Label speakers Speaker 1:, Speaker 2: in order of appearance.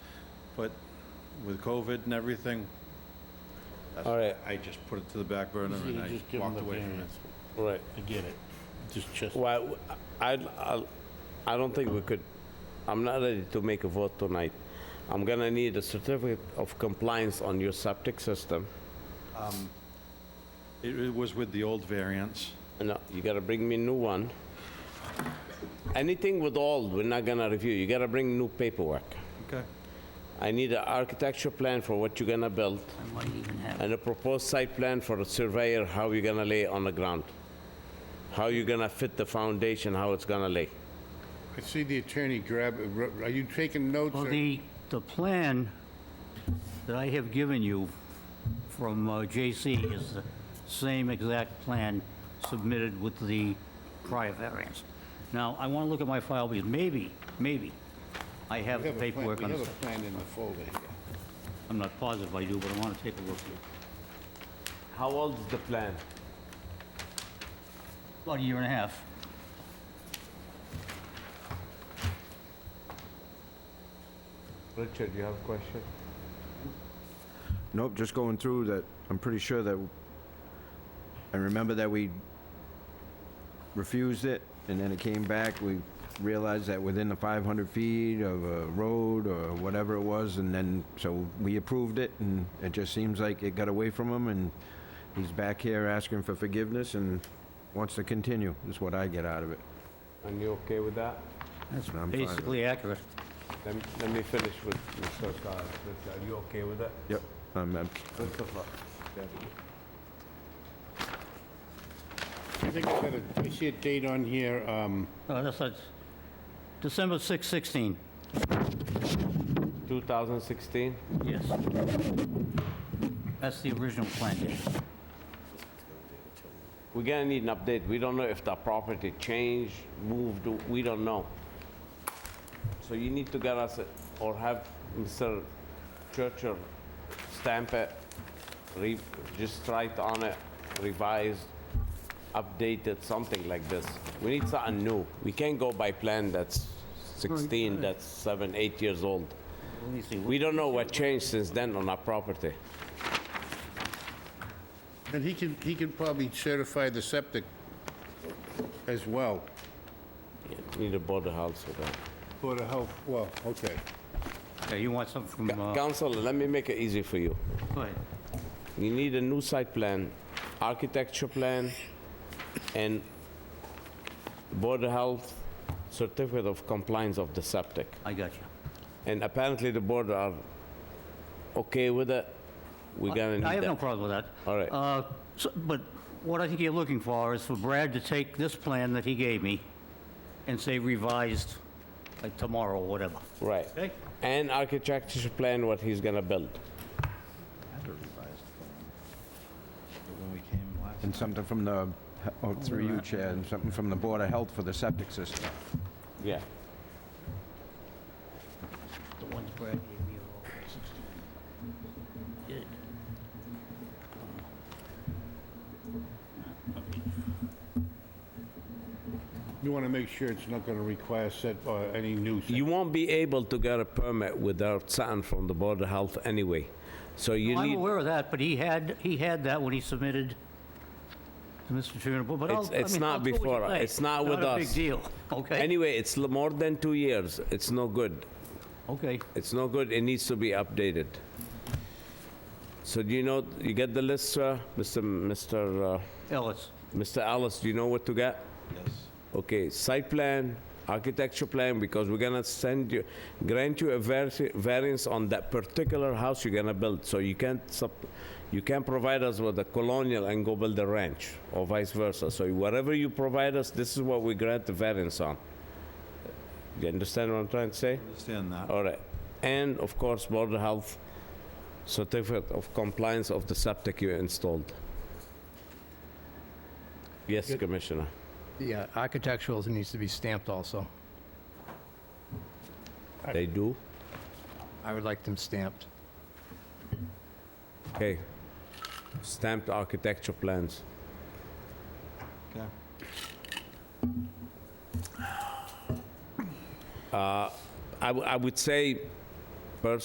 Speaker 1: but with COVID and everything, that's-
Speaker 2: All right.
Speaker 1: I just put it to the back burner
Speaker 3: You
Speaker 1: and
Speaker 3: just
Speaker 1: I
Speaker 3: give 'em
Speaker 1: walked
Speaker 3: the
Speaker 1: away from it.
Speaker 3: variance.
Speaker 2: Right.
Speaker 3: I get it. Just, just,
Speaker 2: Well, I, I, I don't think we could, I'm not ready to make a vote tonight. I'm gonna need a certificate of compliance on your septic system.
Speaker 1: It it was with the old variance.
Speaker 2: No, you gotta bring me a new one. Anything with old, we're not gonna review, you gotta bring new paperwork.
Speaker 1: Okay.
Speaker 2: I need an architecture plan for what you're gonna build,
Speaker 4: And what do you even have?
Speaker 2: and a proposed site plan for the surveyor, how you're gonna lay on the ground. How you're gonna fit the foundation, how it's gonna lay.
Speaker 5: I see the attorney grab, uh, are you taking notes?
Speaker 4: Well,
Speaker 5: or-
Speaker 4: the, the plan that I have given you from uh, JC is the same exact plan submitted with the prior variance. Now, I want to look at my file because maybe, maybe I have
Speaker 5: We
Speaker 4: the
Speaker 5: have a plan-
Speaker 4: paperwork on
Speaker 5: We
Speaker 4: this.
Speaker 5: have a plan in the folder here.
Speaker 4: I'm not positive I do, but I want to take a look here.
Speaker 2: How old is the plan?
Speaker 4: About a year and a half.
Speaker 2: Richard, you have a question?
Speaker 6: Nope, just going through that, I'm pretty sure that, I remember that we refused it, and then it came back, we realized that within the 500 feet of a road or whatever it was, and then, so we approved it, and it just seems like it got away from him, and he's back here asking for forgiveness and wants to continue, is what I get out of it.
Speaker 2: And you okay with that?
Speaker 6: That's what I'm fine with.
Speaker 4: Basically accurate.
Speaker 2: Let me, let me finish with Mr. Carl. Are you okay with that?
Speaker 6: Yep, I'm, I'm-
Speaker 2: Christopher?
Speaker 5: I think I got a, I see a date on here, um,
Speaker 4: Uh, That's, that's December 6, 16.
Speaker 2: 2016?
Speaker 4: Yes. That's the original plan date.
Speaker 2: We're gonna need an update. We don't know if the property changed, moved, we don't know. So you need to get us, a- or have Mr. Churchill stamp it, re, just write on it, revised, updated, something like this. We need something new. We can't go by plan that's 16, that's seven, eight years old.
Speaker 4: Let me see.
Speaker 2: We don't know what changed since then on our property.
Speaker 5: and he can, he can probably certify the septic as well.
Speaker 2: Need a board of health for that.
Speaker 5: Board of Health, well, okay.
Speaker 4: Yeah, You want something from, uh,
Speaker 2: Counselor, let me make it easy for you.
Speaker 4: go ahead.
Speaker 2: You need a new site plan, architecture plan, and board of health certificate of compliance of the septic.
Speaker 4: I got you.
Speaker 2: And apparently the board are okay with it. We're gonna need that.
Speaker 4: I have no problem with that.
Speaker 2: All right.
Speaker 4: Uh, so- But what I think you're looking for is for Brad to take this plan that he gave me and say revised, like tomorrow, or whatever.
Speaker 2: Right.
Speaker 4: Okay.
Speaker 2: And architecture plan, what he's gonna build.
Speaker 6: and something from the, oh, through you, Chair, and something from the Board of Health for the septic system.
Speaker 2: Yeah.
Speaker 4: The ones Brad gave me are all 16. Did.
Speaker 5: You want to make sure it's not going to require set, uh, any new.
Speaker 2: You won't be able to get a permit without something from the board of health anyway. So you
Speaker 4: I'm
Speaker 2: need,
Speaker 4: aware of that, but he had, he had that when he submitted to Mr. Trimball, but I'll,
Speaker 2: It's-
Speaker 4: I
Speaker 2: it's
Speaker 4: mean,
Speaker 2: not
Speaker 4: I'll do what you
Speaker 2: before us.
Speaker 4: say.
Speaker 2: It's not with
Speaker 4: Not a
Speaker 2: us.
Speaker 4: big deal, okay?
Speaker 2: anyway, it's l- more than two years. It's no good.
Speaker 4: Okay,
Speaker 2: It's no good, it needs to be updated. So do you know, you get the list, sir? Mr. M- Mr. uh,
Speaker 4: Ellis,
Speaker 2: Mr. Alice, do you know what to get? Yes. Okay, site plan, architecture plan, because we're gonna send you, grant you a vari- variance on that particular house you're gonna build, so you can't sup- you can't provide us with a colonial and go build a ranch, or vice versa. So whatever you provide us, this is what we grant the variance on. You understand what I'm trying to say?
Speaker 1: Understand that.
Speaker 2: All right. And of course, border health certificate of compliance of the septic you installed. Yes, Commissioner.
Speaker 7: Yeah, architectural needs to be stamped also.
Speaker 2: They do?
Speaker 7: I would like them stamped.
Speaker 2: Okay. Stamped architecture plans.
Speaker 1: Okay.
Speaker 2: I, Uh, w- I would say